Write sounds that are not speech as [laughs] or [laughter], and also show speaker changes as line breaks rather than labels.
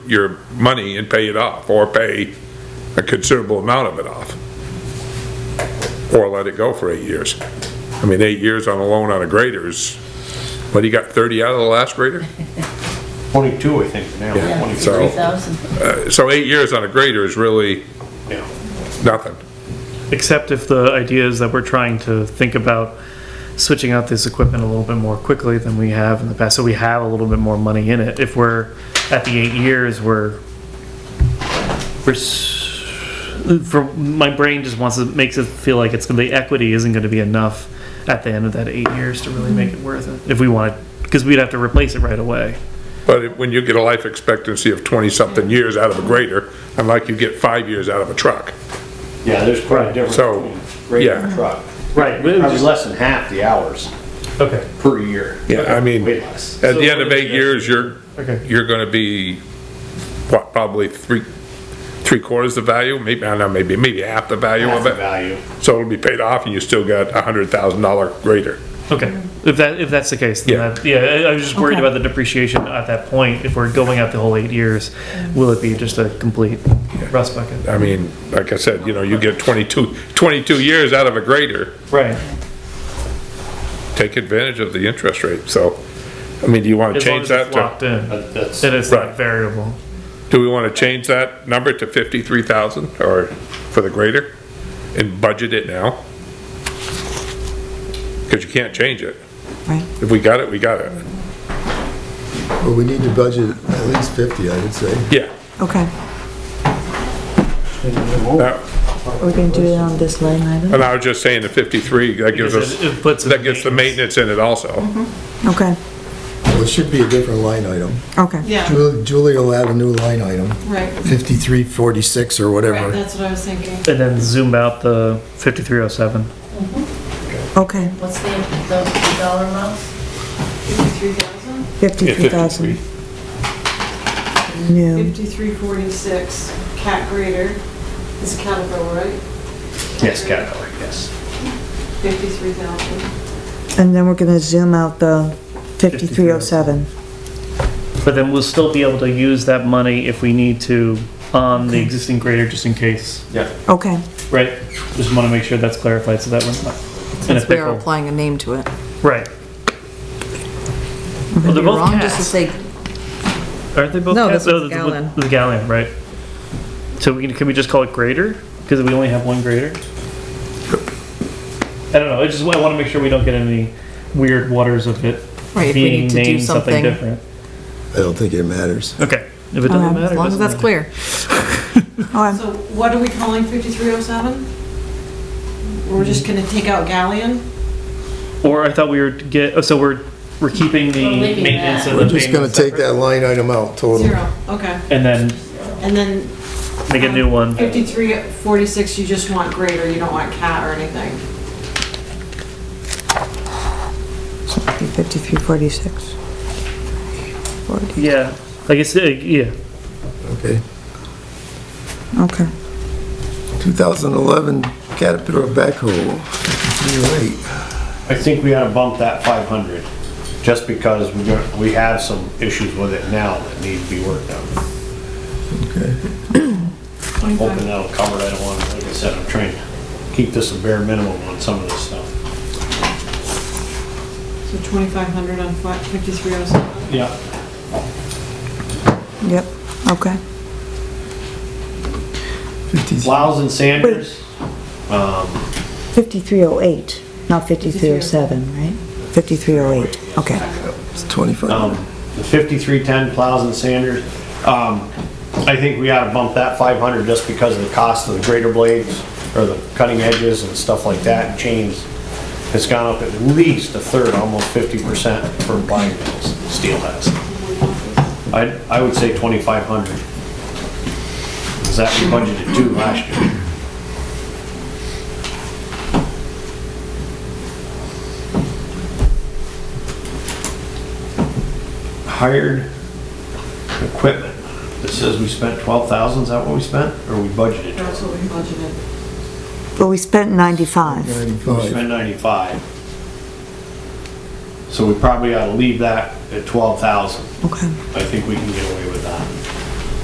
your money and pay it off, or pay a considerable amount of it off. Or let it go for eight years. I mean, eight years on a loan on a grader is, what, you got thirty out of the last grader?
22, I think, now,
Yeah.
Twenty
So-
three.
3,000.
Uh, So eight years on a grader is really
Yeah.
nothing.
Except if the idea is that we're trying to think about switching out this equipment a little bit more quickly than we have in the past, so we have a little bit more money in it. If we're at the eight years, we're, we're, s- for, my brain just wants to, makes it feel like it's gonna be, equity isn't gonna be enough at the end of that eight years to really make it worth it, if we want to, because we'd have to replace it right away.
But it- when you get a life expectancy of twenty-something years out of a grader, unlike you get five years out of a truck.
Yeah, there's quite a
Right.
difference
So,
between rate and
yeah.
truck.
Right.
Probably less than half the hours
Okay,
per year.
Yeah, I mean,
Way less.
at the
So
end of
what is
eight
the-
years, you're,
Okay.
you're gonna be, what, probably three, three quarters the value, maybe, I don't know, maybe, maybe half the value
Half
of
the
it.
value.
So it'll be paid off and you still got a hundred thousand dollar grader.
okay. If that, if that's the case, then
Yeah.
that, yeah, I- I was just worried
Okay.
about the depreciation at that point. If we're going out the whole eight years, will it be just a complete rust bucket?
I mean, like I said, you know, you get 22 22 years out of a grader,
Right.
take advantage of the interest rate, so, I mean, do you wanna
As long
change
as
that
it's
to?
locked in,
That- That's,
then it's not
Right.
variable.
Do we wanna change that number to fifty-three thousand or for the grader? And budget it now? Cause you can't change it.
Right.
If we got it, we got it.
Well, we need to budget at least 50, I would say.
Yeah.
Okay,
That-
we're gonna do it on this line item?
And I was just saying the fifty-three, that gives
Because
us,
it- it puts it
that
in
gets the maintenance in it also.
Okay,
Well, it should be a different line item.
okay.
Yeah,
Ju- Julie will add a new line item,
right, right,
5346 or whatever.
that's what I was thinking.
And then zoom out the 5307.
Okay,
What's the, the dollar amount?
Fifty-three thousand,
Yeah,
53,000
53.
new.
fifty-three forty-six, cat grader, it's a Caterpillar, right?
yes, Caterpillar, yes.
Fifty-three thousand.
And then we're gonna zoom out the 5307.
But then we'll still be able to use that money if we need to on the existing grader, just in case.
Yeah.
Okay,
Right. Just want to make sure that's clarified, so that one's not. in a
Since we are
pickle.
applying a name to it.
Right. Well, they're
It'd be
both
wrong just to
cats.
say,
Aren't they both
No,
cats?
this
Oh,
is
the-
Gallan.
The Gallan, right. So we can, can we just call it grader? Because we only have one grader? I don't know, I just, I want to make sure we don't get any weird waters of it
right, if we
being
need to do
named something
something.
different.
I don't think it matters.
Okay, if it
Okay,
doesn't
as
matter.
Um, As
it
long as
doesn't
that's
matter.
clear.
[laughs] oh,
So what are we calling fifty-three oh seven? We're just gonna take out Galleon?
Or I thought we were to get, oh, so we're, we're keeping the
We're leaving
maintenance
that.
and the
We're just gonna
payment
take that
separate.
line item out total.
Zero, okay.
And then
And then
make a new one.
fifty-three forty-six, you just want grader, you don't want cat or anything.
5346.
Yeah, I guess, uh, yeah,
Okay.
Okay,
2011 Caterpillar backhoe, 5308.
I think we ought to bump that 500, just because we're gonna, we have some issues with it now that need to be worked on. I'm hoping that'll cover it, I don't want, like I said, I'm trying to keep this a bare minimum on some of this stuff.
So twenty-five hundred on fifty-three oh seven.
Yeah.
yep, okay.
53.
Plows and sanders,
5308, not 5307, right? 5308, okay.
It's 25.
um, the fifty-three ten plows and sanders. Um, I think we ought to bump that five hundred just because of the cost of the grater blades or the cutting edges and stuff like that and chains. It's gone up at least a third, almost fifty percent for buying mills, steel has. I, I would say twenty-five hundred. Is that we budgeted two last year? hired equipment. This says we spent twelve thousand, is that what we spent, or we budgeted?
That's what we budgeted.
But we spent 95.
95.
We spent ninety-five. So we probably ought to leave that at twelve thousand.
Okay,
I think we can get away with that.